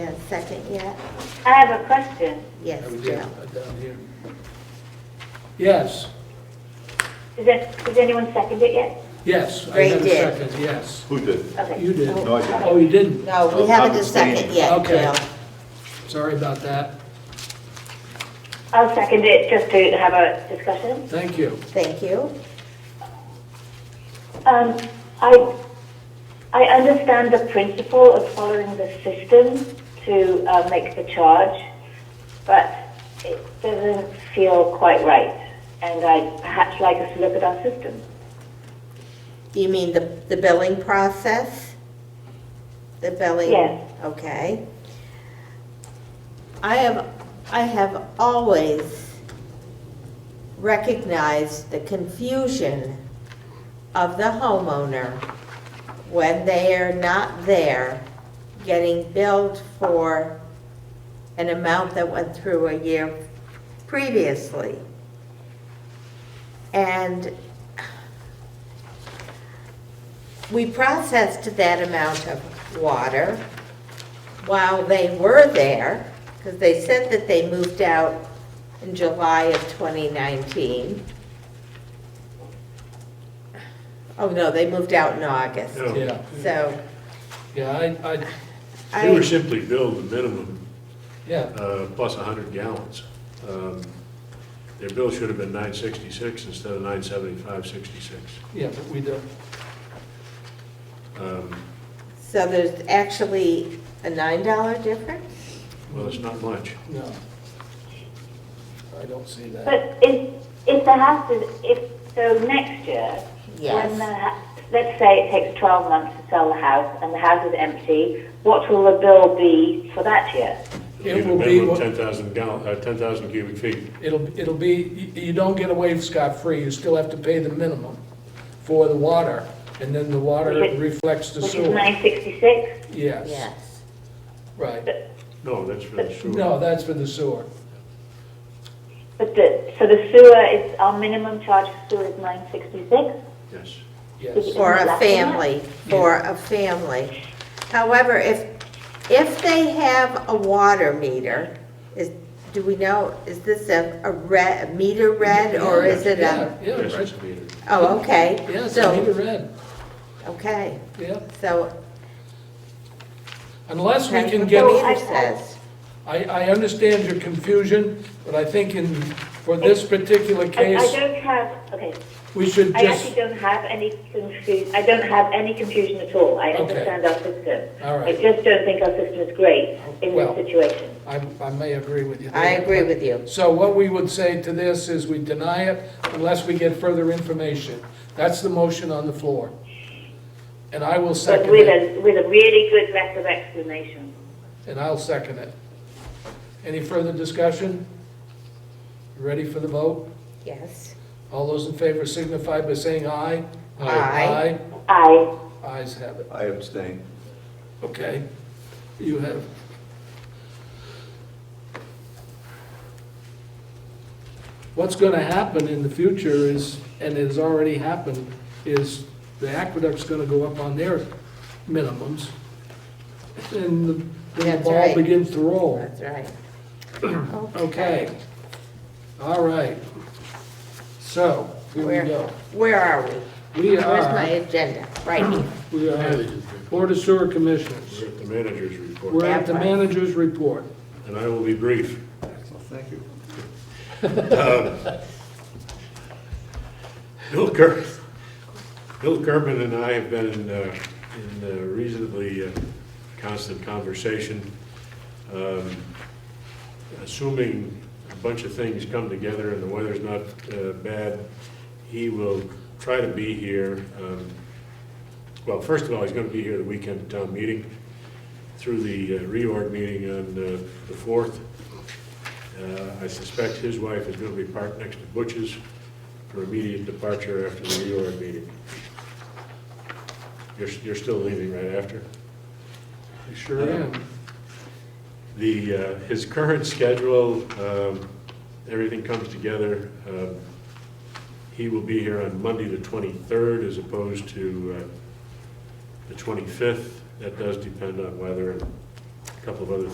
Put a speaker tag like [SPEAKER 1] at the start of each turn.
[SPEAKER 1] second yet?
[SPEAKER 2] I have a question.
[SPEAKER 1] Yes,
[SPEAKER 3] Are we
[SPEAKER 1] Jill.
[SPEAKER 3] down down here? Yes,
[SPEAKER 2] Is it, has anyone seconded it yet?
[SPEAKER 3] yes. I
[SPEAKER 1] Ray
[SPEAKER 3] had a
[SPEAKER 1] did.
[SPEAKER 3] second, Yes.
[SPEAKER 4] Who did?
[SPEAKER 2] Okay.
[SPEAKER 3] You did.
[SPEAKER 4] No, I didn't.
[SPEAKER 3] Oh, you didn't?
[SPEAKER 1] No, we
[SPEAKER 4] I'm
[SPEAKER 1] haven't a second
[SPEAKER 4] abstaining.
[SPEAKER 1] yet,
[SPEAKER 3] Okay.
[SPEAKER 1] Jill.
[SPEAKER 3] Sorry about that.
[SPEAKER 2] I'll second it just to have a discussion.
[SPEAKER 3] Thank you.
[SPEAKER 1] Thank you.
[SPEAKER 2] Um, I, I understand the principle of following the system to uh, make the charge, but it doesn't feel quite right. And I'd perhaps like us to look at our system.
[SPEAKER 1] You mean the, the billing process? The billing?
[SPEAKER 2] Yes.
[SPEAKER 1] Okay. I have, I have always recognized the confusion of the homeowner when they are not there getting billed for an amount that went through a year previously. And we processed that amount of water while they were there, because they said that they moved out in July of 2019. Oh, no, they moved out in August.
[SPEAKER 5] No.
[SPEAKER 3] Yeah,
[SPEAKER 1] So
[SPEAKER 3] yeah, I, I,
[SPEAKER 5] They were
[SPEAKER 1] I,
[SPEAKER 5] simply billed the minimum,
[SPEAKER 3] yeah,
[SPEAKER 5] uh, plus 100 gallons. Um, Their bill should have been 966 instead of 975.66.
[SPEAKER 3] yeah, but we don't,
[SPEAKER 5] Um,
[SPEAKER 1] so there's actually a $9 difference?
[SPEAKER 5] Well, it's not much.
[SPEAKER 3] no. I don't see that.
[SPEAKER 2] But if, if the house is, if, so next year, when the,
[SPEAKER 1] Yes.
[SPEAKER 2] ha- let's say it takes 12 months to sell the house and the house is empty, what will the bill be for that year?
[SPEAKER 3] It
[SPEAKER 5] Even
[SPEAKER 3] will be
[SPEAKER 5] minimum
[SPEAKER 3] what-
[SPEAKER 5] 10,000 gallon, uh, 10,000 cubic feet.
[SPEAKER 3] It'll, it'll be, you, you don't get away scot-free, you still have to pay the minimum for the water, and then the water
[SPEAKER 2] Which is-
[SPEAKER 3] reflects the
[SPEAKER 2] Which is
[SPEAKER 3] sewer.
[SPEAKER 2] 966?
[SPEAKER 3] Yes,
[SPEAKER 1] Yes.
[SPEAKER 3] right.
[SPEAKER 5] No, that's for the sewer.
[SPEAKER 3] No, that's for the sewer.
[SPEAKER 2] But the, so the sewer is, our minimum charge for sewer is 966?
[SPEAKER 5] Yes.
[SPEAKER 3] Yes,
[SPEAKER 1] For a
[SPEAKER 2] Isn't that
[SPEAKER 1] family, for a family. However, if, if they have a water meter, is, do we know, is this a, a red, a meter red, or is it a?
[SPEAKER 3] yeah, yeah,
[SPEAKER 5] Yes,
[SPEAKER 3] right.
[SPEAKER 5] it's metered.
[SPEAKER 1] Oh, okay.
[SPEAKER 3] Yeah, it's a meter
[SPEAKER 1] So,
[SPEAKER 3] red,
[SPEAKER 1] okay,
[SPEAKER 3] yeah.
[SPEAKER 1] so
[SPEAKER 3] Unless we
[SPEAKER 1] that's
[SPEAKER 3] can
[SPEAKER 1] what
[SPEAKER 3] get.
[SPEAKER 1] the meter says.
[SPEAKER 3] I, I understand your confusion, but I think in, for this particular
[SPEAKER 2] I, I
[SPEAKER 3] case,
[SPEAKER 2] don't have, okay,
[SPEAKER 3] we should
[SPEAKER 2] I actually
[SPEAKER 3] just,
[SPEAKER 2] don't have any confusion, I don't have any confusion at all. I
[SPEAKER 3] Okay.
[SPEAKER 2] understand our system.
[SPEAKER 3] All right.
[SPEAKER 2] I just don't think our system is great in
[SPEAKER 3] Well-
[SPEAKER 2] this situation.
[SPEAKER 3] I, I may agree with you. there.
[SPEAKER 1] I agree with you.
[SPEAKER 3] So what we would say to this is we deny it unless we get further information. That's the motion on the floor. And I will
[SPEAKER 2] But
[SPEAKER 3] second
[SPEAKER 2] with
[SPEAKER 3] it,
[SPEAKER 2] a, with a really good letter of explanation.
[SPEAKER 3] and I'll second it. Any further discussion? You Ready for the vote?
[SPEAKER 1] Yes.
[SPEAKER 3] All those in favor signify by saying aye.
[SPEAKER 1] Aye.
[SPEAKER 2] Aye.
[SPEAKER 3] Aye, ayes have it.
[SPEAKER 4] I abstain.
[SPEAKER 3] Okay, you have. What's gonna happen in the future is, and it has already happened, is the aqueduct's gonna go up on their minimums. And the- the
[SPEAKER 1] That's
[SPEAKER 3] ball
[SPEAKER 1] right.
[SPEAKER 3] begins to roll.
[SPEAKER 1] That's right.
[SPEAKER 3] Okay. All right. So, here we
[SPEAKER 1] Where-
[SPEAKER 3] go.
[SPEAKER 1] Where are we?
[SPEAKER 3] We
[SPEAKER 1] Where's my
[SPEAKER 3] are,
[SPEAKER 1] agenda? Right here.
[SPEAKER 3] we are Board of Sewer Commissioners.
[SPEAKER 5] We're at the manager's
[SPEAKER 3] We're
[SPEAKER 5] report,
[SPEAKER 3] at the manager's report.
[SPEAKER 5] and I will be brief. Um,
[SPEAKER 4] Excellent, thank you.
[SPEAKER 5] Bill Kerr, Bill Kerman and I have been in, uh, in uh, reasonably uh, constant conversation. Um, Assuming a bunch of things come together and the weather's not uh, bad, he will try to be here. um, Well, first of all, he's gonna be here the weekend of town meeting through the uh, reorg meeting on uh, the fourth. Uh, I suspect his wife is going to be parked next to Butch's for immediate departure after the reorg meeting. You're, you're still leaving right after?
[SPEAKER 3] I Sure am.
[SPEAKER 5] The, uh, his current schedule, um, everything comes together. Um, He will be here on Monday, the 23rd, as opposed to uh, the 25th. That does depend on weather and a couple of other